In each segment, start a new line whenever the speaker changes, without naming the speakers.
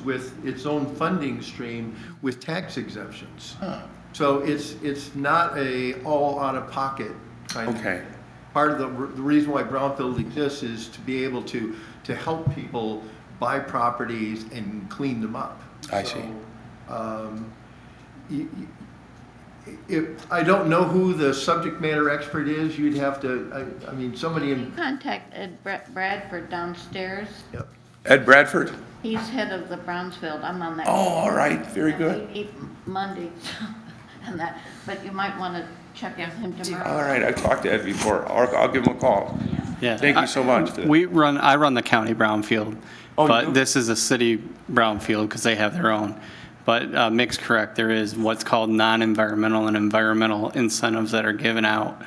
with its own funding stream with tax exemptions. So it's, it's not a all out of pocket kind of.
Okay.
Part of the, r- the reason why brownfield exists is to be able to, to help people buy properties and clean them up.
I see.
So, um, y- y- If, I don't know who the subject matter expert is, you'd have to, I, I mean, somebody
You
in,
contact Ed Bra- Bradford downstairs.
yep.
Ed Bradford?
He's head of the Brownsfield. I'm on that.
Oh, all right, very
And
good.
We meet Monday and that, but you might want to check with him tomorrow.
All right, I've talked to Ed before. I'll, I'll give him a call.
Yeah.
Thank you so much for that.
We run, I run the county brownfield,
Oh, you do?
but this is a city brownfield because they have their own. But uh, Mick's correct, there is what's called non-environmental and environmental incentives that are given out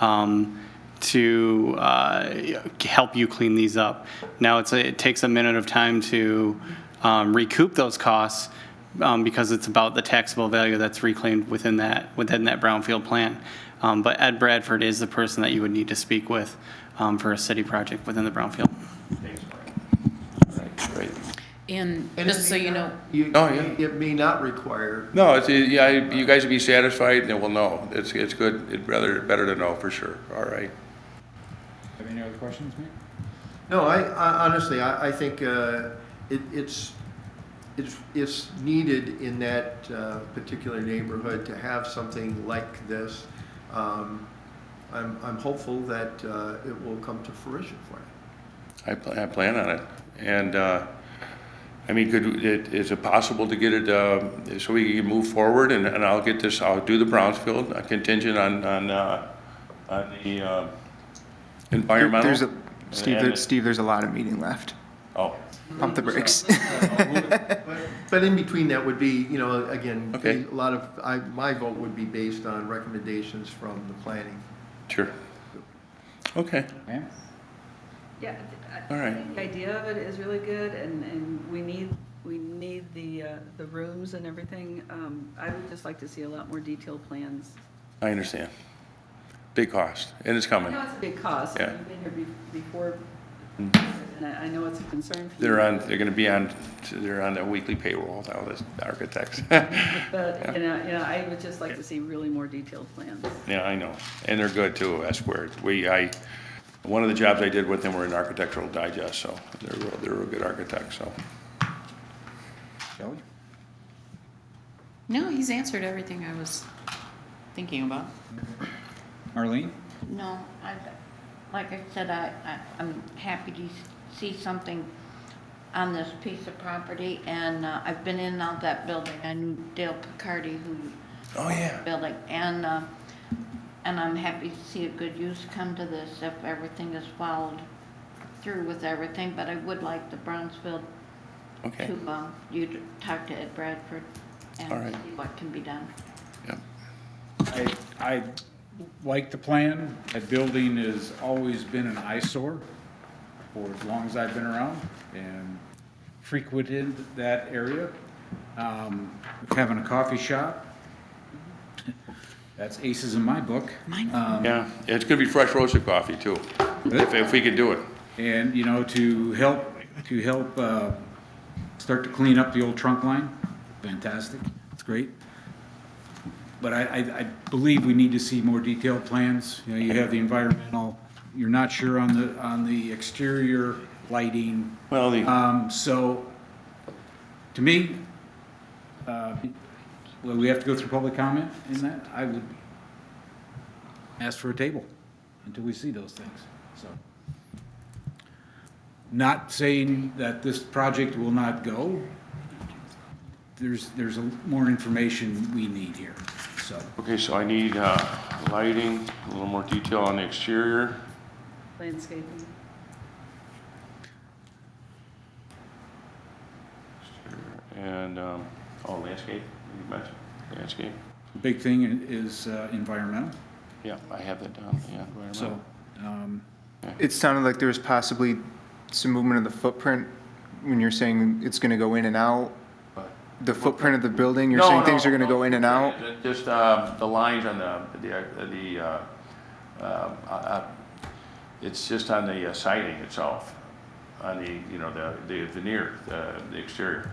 um, to uh, help you clean these up. Now, it's, a- it takes a minute of time to um, recoup those costs um, because it's about the taxable value that's reclaimed within that, within that brownfield plan. Um, But Ed Bradford is the person that you would need to speak with um, for a city project within the brownfield.
Great.
And
And it
just so
may
you
not-
know,
Oh, yeah.
It may not require
No, it's, it- yeah, you guys will be satisfied and we'll know. It's, it's good. It's rather, better to know for sure. All right.
Have any other questions, Mick?
No, I, I honestly, I, I think uh, it, it's, it's, it's needed in that uh, particular neighborhood to have something like this. Um, I'm, I'm hopeful that uh, it will come to fruition for you.
I, pl- I plan on it. And, uh, I mean, could, it, is it possible to get it, uh, so we can move forward and, and I'll get this, I'll do the Brownsfield uh, contingent on, on, uh, on the, uh,
There-
environmental?
There's a, Steve,
And-
there, Steve, there's a lot of meeting left.
Oh,
Pump the brakes.
But in between that would be, you know, again,
Okay.
a lot of, I, my vote would be based on recommendations from the planning.
sure. Okay,
Ma'am?
Yeah, I-
All
I
right.
think the idea of it is really good, and, and we need, we need the, uh, the rooms and everything. Um, I would just like to see a lot more detailed plans.
I understand. Big cost, and it's
I
coming.
know it's a big cost,
Yeah. Mm-hmm.
I've been here be- before, and I, I know it's a concern for you.
They're on, they're gonna be on, they're on their weekly payroll now, this architects.
But, you know, you know, I would just like to see really more detailed plans.
Yeah, I know, and they're good too, S squared. We, I, one of the jobs I did with them were in Architectural Digest, so they're, real- they're a good architect, so.
Shelley?
no, he's answered everything I was thinking about.
Marlene?
No, I, like I said, I, I- I'm happy to see something on this piece of property, and uh, I've been in and out that building. I knew Dale Picardi, who.
Oh, yeah.
Building, and, uh, and I'm happy to see a good use come to this if everything is followed through with everything, but I would like the Brownsville
Okay,
to, uh, you to talk to Ed Bradford and
All right.
see what can be done.
yeah,
I, I like the plan. That building has always been an eyesore for as long as I've been around and frequented that area. Um, Having a coffee shop, that's aces in my book. Um,
yeah, it's gonna be fresh roasted coffee too, if, if we could do it.
And, you know, to help, to help uh, start to clean up the old trunk line, fantastic, it's great. But I, I, I believe we need to see more detailed plans. You know, you have the environmental, you're not sure on the, on the exterior lighting.
Well, the,
Um, So, to me, uh, well, we have to go through public comment in that. I would ask for a table until we see those things, so. Not saying that this project will not go. There's, there's a- more information we need here, so.
okay, so I need, uh, lighting, a little more detail on the exterior.
Landscaping,
And, um, oh, landscape, you mentioned, landscape,
the Big thing i- is uh, environmental,
yeah, I have that down, yeah. environmental.
so. um,
It sounded like there was possibly some movement of the footprint when you're saying it's gonna go in and out. The footprint of the building, you're
No,
saying things
no,
are gonna
no.
go in and out?
Just, uh, the lines on the, the, the, uh, uh, uh, it's just on the uh, siding itself, on the, you know, the, the veneer, the the exterior.